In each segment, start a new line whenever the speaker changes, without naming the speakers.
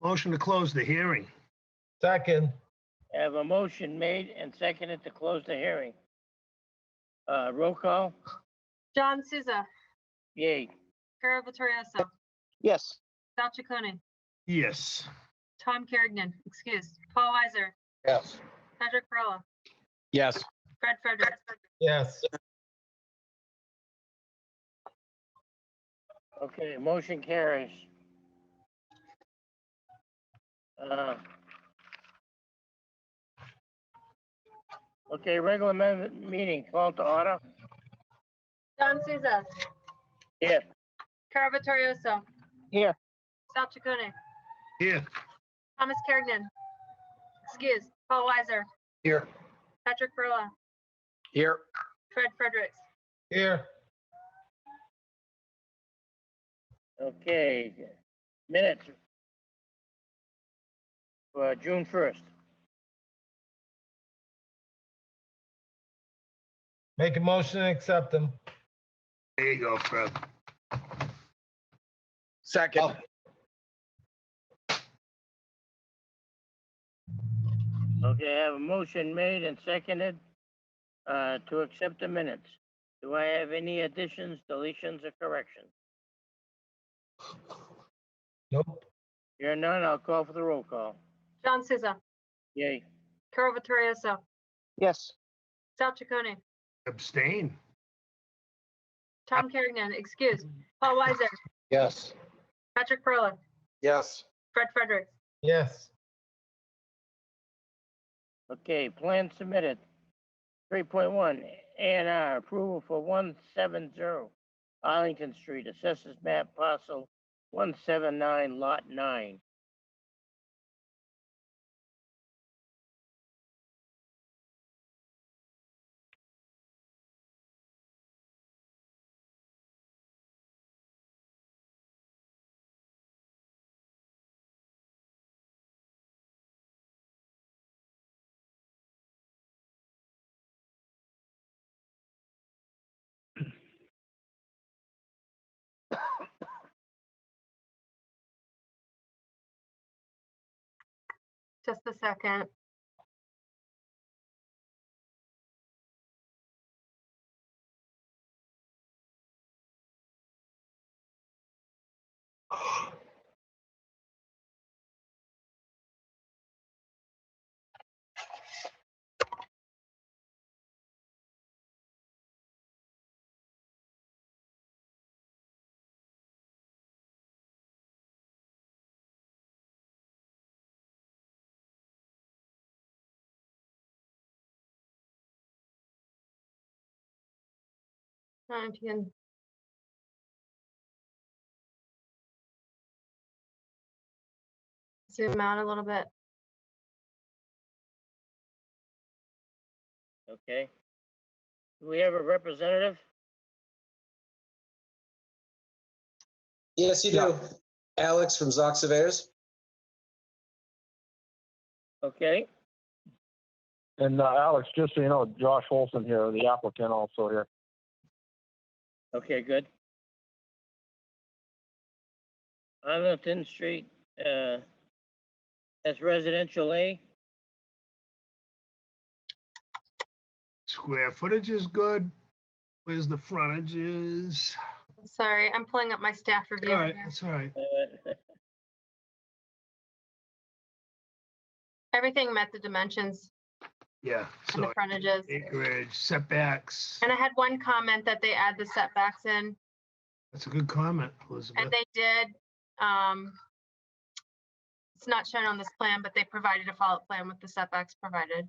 Motion to close the hearing.
Second,
I have a motion made and seconded to close the hearing. Uh, roll call?
John Souza,
Yay.
Carol Vittorioso,
yes,
Sal Chaconi,
Yes.
Tom Kerrigan, excuse, Paul Weiser,
yes.
Patrick Perla,
yes,
Fred Frederick,
Yes,
Okay, motion carries. Uh, Okay, regular me- meeting called to order.
John Souza,
Yes.
Carol Vittorioso.
Here.
Sal Chaconi,
Here.
Thomas Kerrigan, excuse, Paul Weiser,
here,
Patrick Perla,
here,
Fred Fredericks,
here,
Okay, minutes. For June first.
make a motion and accept them.
There you go, Fred.
Oh.
second,
Okay, I have a motion made and seconded uh, to accept the minutes. Do I have any additions, deletions, or corrections?
Nope,
Here none, I'll call for the roll call.
John Souza,
Yay.
Carol Vittorioso,
yes,
Sal Chaconi,
Abstain.
Tom Kerrigan, excuse, Paul Weiser,
yes.
Patrick Perla,
yes,
Fred Fredericks,
Yes,
Okay, plan submitted. Three point one, A and R approval for one seven zero Arlington Street, assessors map parcel one seven nine lot nine.
just a second. Uh, If you can zoom out a little bit.
Okay. Do we have a representative?
Yes, you do. Alex from Zoc Surveyors.
Okay,
And uh, Alex, just so you know, Josh Olson here, the applicant also here.
okay, good. Arlington Street, uh, that's residential A.
Square footage is good. Where's the frontage is?
Sorry, I'm pulling up my staff
All
review.
right,
here.
that's all right.
uh,
Everything met the dimensions
Yeah,
and the
so
frontages.
acreage, setbacks.
And I had one comment that they add the setbacks in,
That's a good comment,
and
Elizabeth.
they did. um, It's not shown on this plan, but they provided a follow-up plan with the setbacks provided.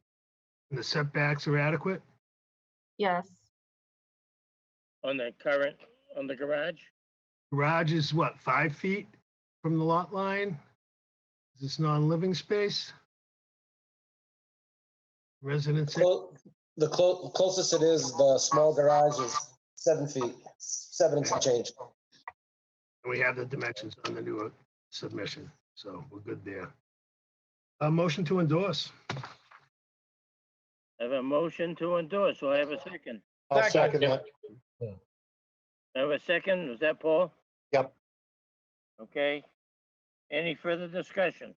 And The setbacks are adequate?
Yes,
on the current, on the garage.
Garage is what, five feet from the lot line? Is this non-living space? Residence,
Clo- The clo- closest it is, the small garage is seven feet, seven and some change.
we have the dimensions on the new uh, submission, so we're good there. A motion to endorse.
I have a motion to endorse, so I have a second.
I'll second
that.
I have a second, was that Paul?
Yep.
Okay. Any further discussion?